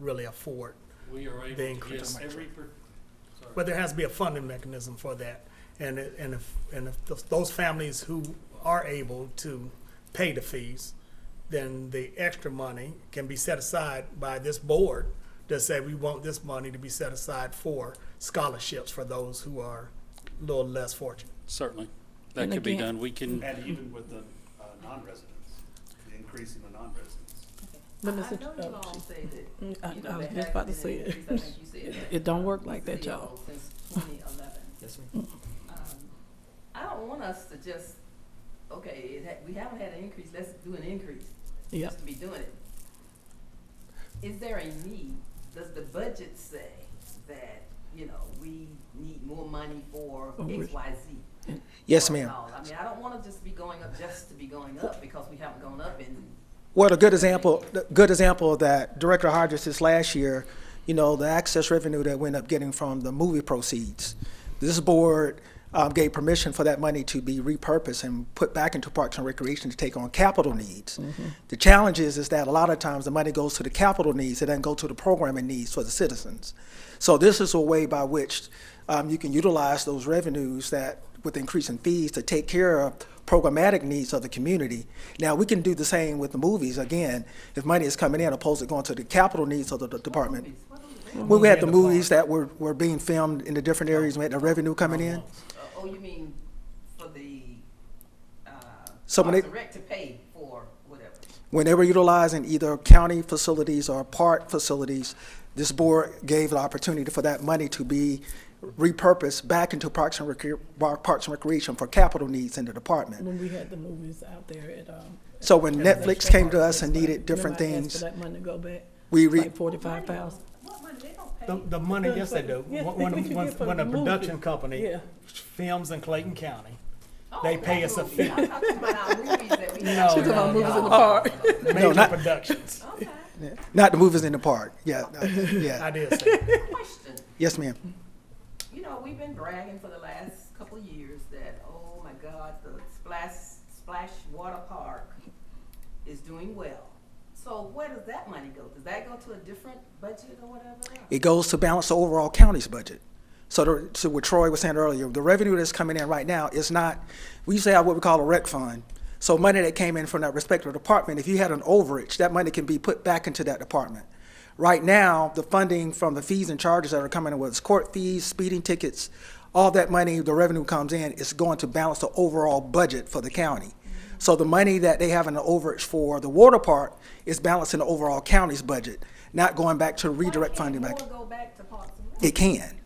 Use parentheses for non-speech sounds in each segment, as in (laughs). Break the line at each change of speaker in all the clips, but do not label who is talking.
really afford.
We are able
Being
to get
critical.
every, per-
But there has to be a funding mechanism for that. And, it- and if, and if those- those families who are able to pay the fees, then the extra money can be set aside by this board to say, we want this money to be set aside for scholarships for those who are a little less fortunate.
certainly, that
And
could be
again-
done. We can,
And even with the uh, non-residents, the increase in the non-residents.
But
I-
it's a-
I know you
oh,
all say that,
Mm,
you
I,
know,
I was
there
just
has
about to
been
say
an
it.
increase. I think you said that.
It don't work like that,
City of
y'all.
Oak Since twenty eleven.
Yes, ma'am.
Um, I don't want us to just, okay, it ha- we haven't had an increase, let's do an increase.
Yep.
Just to be doing it. Is there a need? Does the budget say that, you know, we need more money for
Oh,
X,
which-
Y, Z?
Yes,
or
ma'am.
all? I mean, I don't wanna just be going up just to be going up because we haven't gone up in
Well, a good example, a good example of that, Director Hodges, this last year, you know, the access revenue that we ended up getting from the movie proceeds. This board um, gave permission for that money to be repurposed and put back into Parks and Recreation to take on capital needs. The challenge is, is that a lot of times the money goes to the capital needs, it doesn't go to the programming needs for the citizens. So this is a way by which um, you can utilize those revenues that, with increasing fees, to take care of programmatic needs of the community. Now, we can do the same with the movies, again, if money is coming in, opposed to going to the capital needs of the the department.
movies. What are we-
When we had the movies that were, were being filmed in the different areas, we had the revenue coming in.
Uh, Oh, you mean for the, uh,
So when
Parks
it-
and Rec to pay for whatever?
When they were utilizing either county facilities or park facilities, this board gave the opportunity for that money to be repurposed back into Parks and Recre- Parks and Recreation for capital needs in the department.
(laughs) When we had the movies out there at, um.
So when
at the
Netflix came to
restaurant,
us and needed different
remember I asked
things,
For that money to go back,
we re,
like forty-five thousand.
What money, they don't pay.
The, the money, yes, they do.
Yeah,
When,
(laughs) what you
when,
get for
when a
the movie.
production company
Yeah,
films in Clayton County, (laughs)
Oh,
they pay
that
us a
movie.
fee.
I'm talking about our movies that (laughs) we
No,
have.
She's talking
about movies
Uh,
in the park. (laughs)
major
not-
productions.
Okay,
not the movies in the park, yeah, uh,
(laughs)
(laughs)
yeah,
I did say. that.
question.
yes, ma'am.
You know, we've been bragging for the last couple of years that, oh my God, the Splash, Splash Water Park is doing well. So where does that money go? Does that go to a different budget or whatever?
It goes to balance the overall county's budget. So to, to what Troy was saying earlier, the revenue that's coming in right now is not, we used to have what we call a rec fund. So money that came in from that respective department, if you had an overage, that money can be put back into that department. Right now, the funding from the fees and charges that are coming in, whether it's court fees, speeding tickets, all that money, the revenue comes in, is going to balance the overall budget for the county. So the money that they have in the overage for the water park is balancing the overall county's budget, not going back to redirect funding
Why
back.
can't more go back to Parks and Rec?
It can.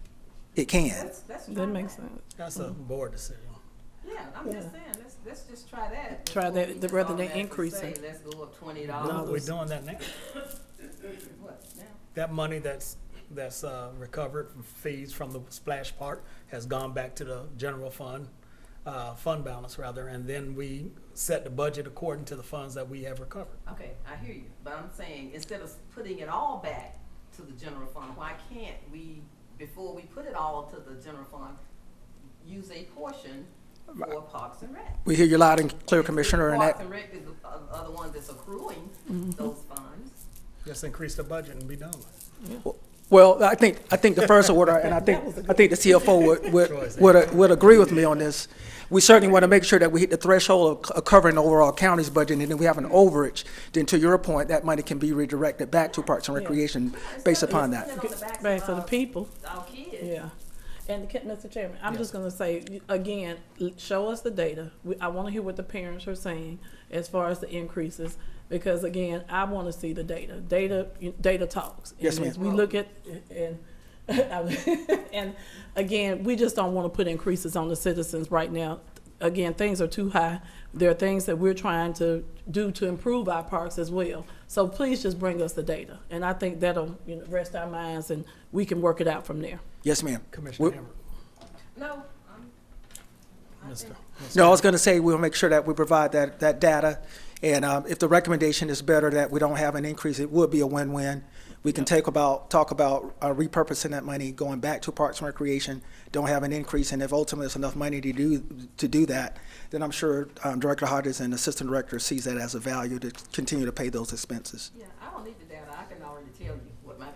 It can.
Let's- let's try
that makes sense.
That's a board decision.
Yeah, I'm just saying, let's, let's just try that.
Try
before
that,
we
the-
just
rather than
automatically
increase
say,
it.
Let's go up twenty
No, we're
dollars.
doing that now.
What, now?
That money that's, that's uh, recovered from fees from the splash park has gone back to the general fund, uh, fund balance rather, and then we set the budget according to the funds that we have recovered.
Okay, I hear you, but I'm saying, instead of putting it all back to the general fund, why can't we, before we put it all to the general fund, use a portion for Parks and Rec?
We hear you loud and clear, Commissioner, and
Parks
that,
and Rec is the, uh, are the ones that's accruing those funds.
Just increase the budget and be done with
well, I think, I think the first order, and I think, I think the CFO would, would, would, would agree with me on this. We certainly want to make sure that we hit the threshold of c- of covering the overall county's budget, and then we have an overage, then to your point, that money can be redirected back to Parks and Recreation based
Instead of
upon
just
that.
putting it on the backs
Back for the
of
people,
Our kids.
yeah. And the- Mr. Chairman, I'm just gonna say, you- again, l- show us the data. We, I wanna hear what the parents are saying as far as the increases. Because again, I wanna see the data. Data, you- data talks.
Yes,
And
ma'am.
as We look at, and, (laughs) and again, we just don't wanna put increases on the citizens right now. Again, things are too high. There are things that we're trying to do to improve our parks as well. So please just bring us the data. And I think that'll, you know, rest our minds and we can work it out from there.
Yes, ma'am.
Commissioner
We-
Hammer,
No, I'm, I
Mr.
think,
No, I was going to say, we'll make sure that we provide that, that data. And um, if the recommendation is better that we don't have an increase, it would be a win-win. We can take about, talk about uh, repurposing that money, going back to Parks and Recreation, don't have an increase, and if ultimately it's enough money to do, to do that, then I'm sure um, Director Hodges and Assistant Director sees that as a value to continue to pay those expenses.
yeah, I don't need the data, I can